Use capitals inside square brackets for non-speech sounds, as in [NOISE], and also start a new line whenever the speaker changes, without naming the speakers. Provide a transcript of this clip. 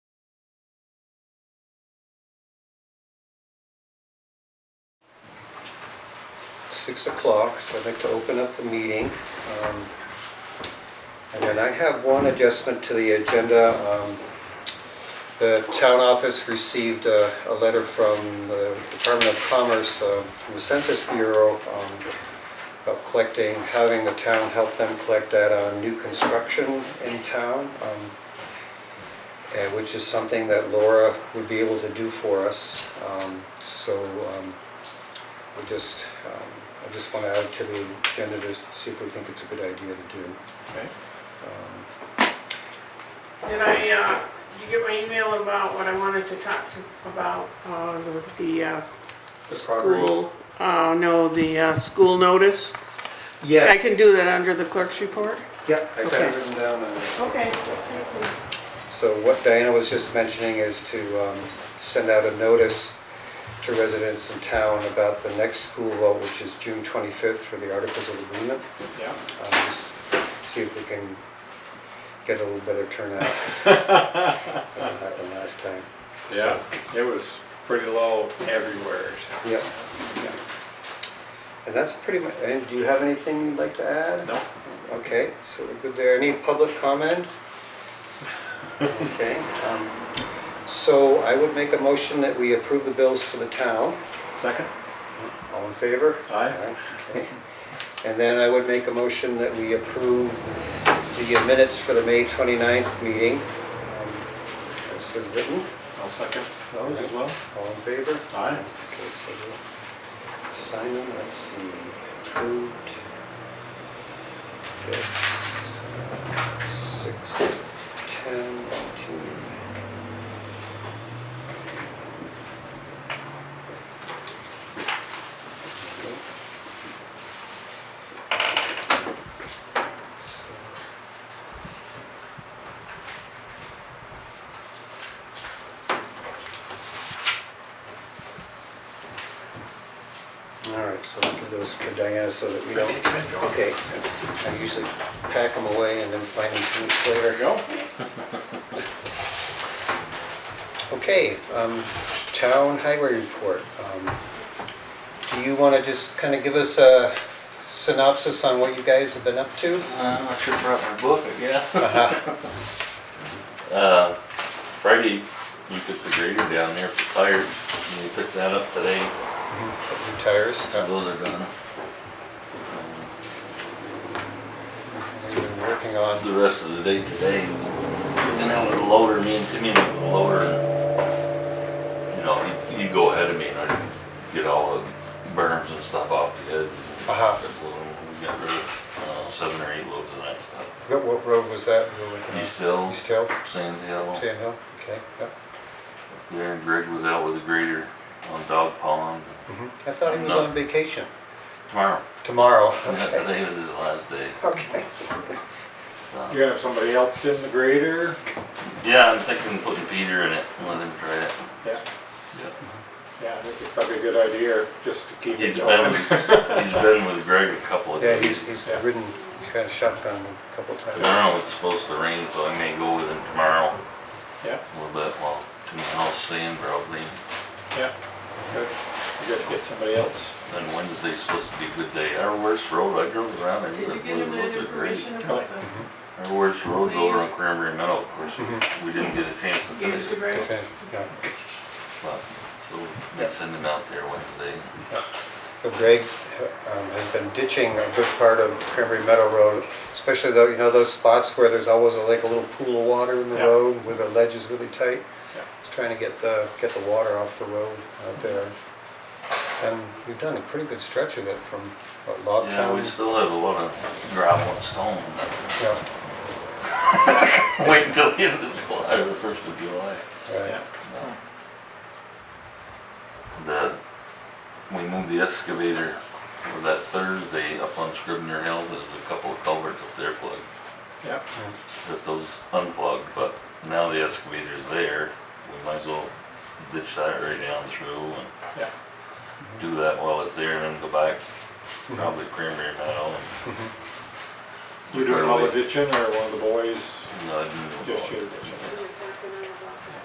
six o'clock, so I'd like to open up the meeting. Um, And then I have one adjustment to the agenda. Um, The town office received uh, a letter from the Department of Commerce, uh, from the Census Bureau, um, about collecting, having the town help them collect data on new construction in town. Um, uh, which is something that Laura would be able to do for us. Um, So um, we just, um, I just want to add to the agenda to see if we think it's a good idea to do.
Okay.
Um,
Did I, uh, did you get my email about what I wanted to talk to about, uh, the- the, uh,
The property?
school? Uh, no, the, uh, school notice? I
Yeah,
can do that under the clerk's report?
yeah, I got it
Okay.
written down. on it.
Okay.
So what Diana was just mentioning is to um, send out a notice to residents in town about the next school vote, which is June 25th for the Articles of Agreement.
Yeah.
Um, just See if we can get a little better turnout than we had the last time. So,
Yeah, it was pretty low everywhere, so.
Yep, yep. And that's pretty much, and do you have anything you'd like to add?
No,
Okay, so we're good there. Any public comment? Okay, um, so I would make a motion that we approve the bills to the town.
second?
All in favor?
Aye.
Aye, okay. And then I would make a motion that we approve the minutes for the May 29th meeting. um, As they're written,
I'll second those as well.
all in favor?
Aye.
Okay, so we'll Sign them, let's see, approved. Yes, six, ten, two. So, All right, so I'll give those to Diana so that we don't, okay. I usually pack them away and then find them two weeks
There you
later.
go.
[LAUGHS] Okay, um, town highway report. Um, Do you want to just kind of give us a synopsis on what you guys have been up
[LAUGHS]
to?
Uh, I should probably book it, yeah.
Uh-huh.
[LAUGHS] Uh, Friday, you took the grader down there for tires, and they picked that up today,
New Tires?
so those are done.
We've been working on,
The rest of the day today, and then with the loader, me and Timmy with the loader, you know, you, you go ahead of me and I get all the berms and stuff off the head.
Uh-huh.
We got rid of, uh, seven or eight loads of that stuff.
what- what road was that? we were working on?
East Hill,
East Hill,
Sand Hill.
Sand Hill, okay, yeah.
There, and Greg was out with the grader on Dog Pond
Mm-hmm.
I thought he was
No.
on vacation.
tomorrow.
Tomorrow,
Yeah,
okay,
Today was his last day.
okay.
so.
You gonna have somebody else in the grader?
Yeah, I'm thinking putting Peter in it and let him try it.
Yeah,
Yeah.
yeah, I think it's probably a good idea, just to keep
He's
it
been,
going.
he's been with Greg a couple of
Yeah,
days.
he's, he's
Yeah.
ridden kind of shotgun a couple times.
Tomorrow it's supposed to rain, so I may go with him tomorrow
Yeah,
a little bit while Timmy Hall's sand probably.
yeah, good, you gotta get somebody else.
Then Wednesday's supposed to be a good day. Our worst road, I drove around, I
Did you
really
get him that
looked at great.
information about the,
Our worst road's over on Cranberry Meadow, of course.
Mm-hmm.
We didn't get a chance to
give
finish
it to
it,
Greg?
Defense, yeah.
but, so we may send him out there Wednesday.
So Greg um, has been ditching a good part of Cranberry Meadow Road, especially though, you know, those spots where there's always a- like a little pool of water in the
Yeah.
road where the ledge is really tight.
Yeah.
He's trying to get the, get the water off the road out there. And we've done a pretty good stretch of it from what, Log
Yeah,
Town.
we still have a lot of gravel and stone.
Yeah,
Wait until the end of July, or oh, the first of July.
right.
Yeah,
The, we moved the excavator for that Thursday up on Scribner Hill, there's a couple of culverts up there plugged,
yeah,
that those unplugged, but now the excavator's there, we might as well ditch that right down through and
yeah,
do that while it's there and then go back,
Mm-hmm.
probably cranberry meadow
you doing all the ditching or one of the boys,
and, uh, do the
just
road.
you ditching?